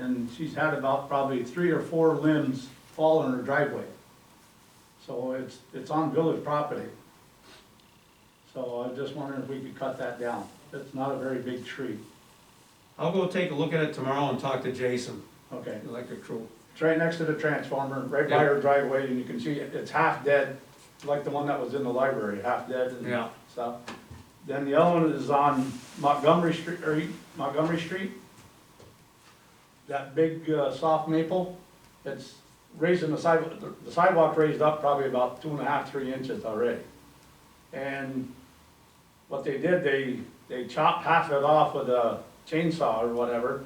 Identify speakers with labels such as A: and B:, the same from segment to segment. A: And she's had about probably three or four limbs fall in her driveway. So it's, it's on village property. So I was just wondering if we could cut that down. It's not a very big tree.
B: I'll go take a look at it tomorrow and talk to Jason,
A: Okay.
B: the electric crew.
A: It's right next to the transformer, right by her driveway, and you can see it, it's half dead, like the one that was in the library, half dead and
B: Yeah,
A: stuff. Then the other one is on Montgomery Street, or Montgomery Street. That big, uh, soft maple, it's raising the sidewalk, the sidewalk raised up probably about two and a half, three inches already. And what they did, they, they chopped half of it off with a chainsaw or whatever,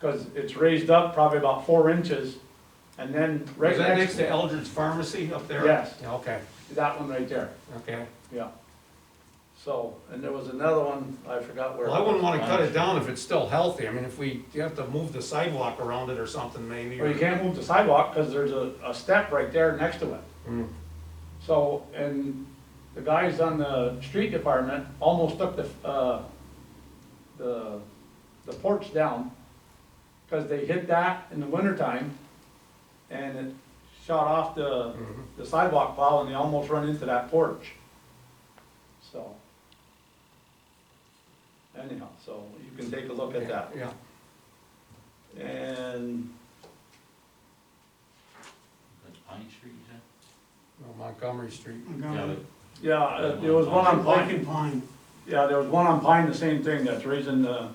A: cause it's raised up probably about four inches, and then right
B: is that
A: next,
B: next to Eldred's Pharmacy up there?
A: Yes.
B: Yeah, Okay,
A: that one right there.
B: okay.
A: Yeah. So, and there was another one, I forgot where.
B: Well, I wouldn't wanna cut it down if it's still healthy, I mean, if we, you have to move the sidewalk around it or something maybe.
A: Well,
B: or-
A: you can't move the sidewalk because there's a, a step right there next to it.
B: Mm.
A: So, and the guys on the street department almost took the, uh, the, the porch down because they hit that in the wintertime and it shot off the,
B: Mhm.
A: the sidewalk pile and they almost run into that porch. So. Anyhow, so you can take a look at that.
B: Yeah,
A: And
C: That's Pine Street, you said?
B: well, Oh, Montgomery Street.
C: Yeah,
A: Yeah, uh, there was one on
D: Like
A: Pine,
D: in Pine,
A: yeah, there was one on Pine, the same thing, that's raising the,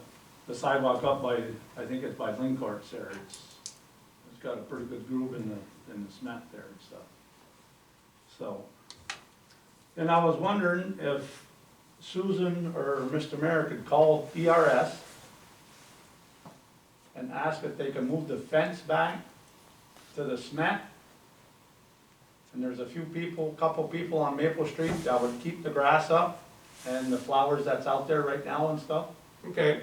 A: the sidewalk up by, I think it's by Linkarts there, it's, it's got a pretty good groove in the, in the cement there and stuff. So, and I was wondering if Susan or Mr. Mayor could call ERS and ask if they can move the fence back to the cement. And there's a few people, couple people on Maple Street that would keep the grass up and the flowers that's out there right now and stuff.
B: Okay.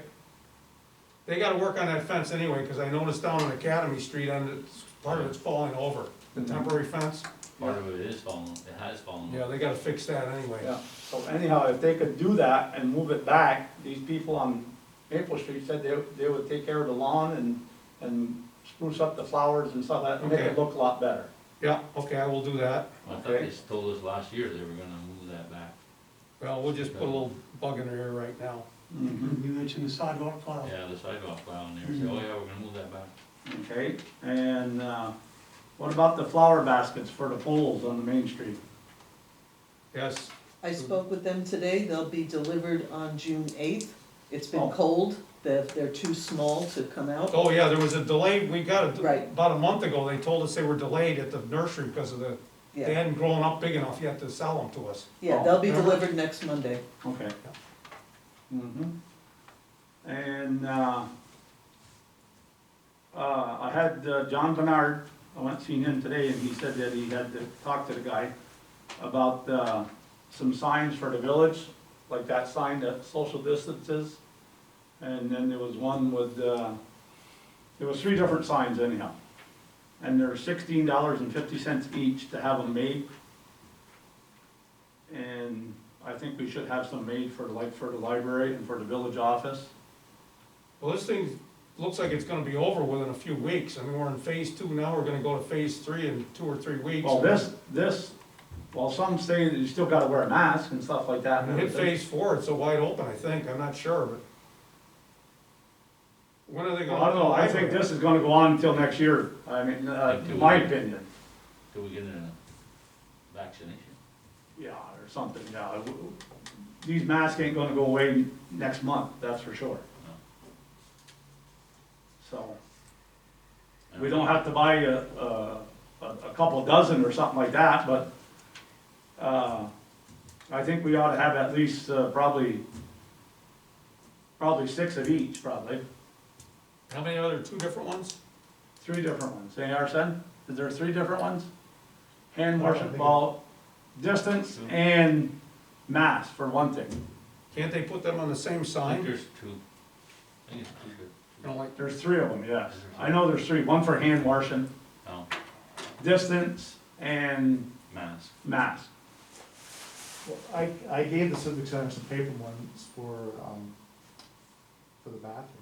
B: They gotta work on that fence anyway, cause I noticed down on Academy Street, and it's, part of it's falling over, the
A: Mm-hmm.
B: temporary fence.
C: Part of it is falling, it has fallen.
B: Yeah, they gotta fix that anyway.
A: Yeah, so anyhow, if they could do that and move it back, these people on Maple Street said they, they would take care of the lawn and, and spruce up the flowers and stuff like that, and make it
B: Okay.
A: look a lot better.
B: Yeah, okay, I will do that.
C: I thought they told us last year they were gonna move that back.
B: Well, we'll just put a little bug in her ear right now.
D: you mentioned the sidewalk pile.
C: Yeah, the sidewalk plow in there, say, oh yeah, we're gonna move that back.
A: Okay, and, uh, what about the flower baskets for the poles on the main street?
B: Yes,
E: I spoke with them today, they'll be delivered on June eighth. It's
A: Oh.
E: been cold, they're, they're too small to come out.
B: oh yeah, there was a delay, we got it,
E: Right.
B: about a month ago, they told us they were delayed at the nursery because of the, they
E: Yeah,
B: hadn't grown up big enough yet to sell them to us.
E: yeah, they'll be
B: Oh.
E: delivered next Monday.
A: Okay. Mm-hmm. And, uh, uh, I had uh, John Bernard, I went and seen him today, and he said that he had to talk to the guy about, uh, some signs for the village, like that sign that social distances. And then there was one with, uh, there was three different signs anyhow. And they're sixteen dollars and fifty cents each to have them made. And I think we should have some made for like for the library and for the village office.
B: Well, this thing looks like it's gonna be over within a few weeks, I mean, we're in phase two now, we're gonna go to phase three in two or three weeks.
A: Well, this, this, well, some say that you still gotta wear a mask and stuff like that.
B: When we hit phase four, it's a wide open, I think, I'm not sure, but. When are they
A: Well,
B: gonna?
A: I don't know, I think this is gonna go on until next year, I mean, uh, in my opinion.
C: Till we get a vaccination.
A: Yeah, or something, yeah. These masks ain't gonna go away next month, that's for sure.
C: No.
A: So,
C: I
A: we don't have to buy a, a, a a couple dozen or something like that, but, uh, I think we ought to have at least, uh, probably, probably six of each, probably,
B: How many other, two different ones?
A: three different ones. Any Arson, is there three different ones? Hand
B: I don't
A: washing
B: think-
A: ball, distance and mass for one thing.
B: Can't they put them on the same
C: I think
B: sign?
C: there's two. I think it's two
B: You know,
C: good.
B: like,
A: There's three of them, yes. I know there's three, one for hand washing,
C: No,
A: distance and
C: mask.
A: mass.
F: Well, I, I gave the civic center some paper ones for, um, for the bathroom.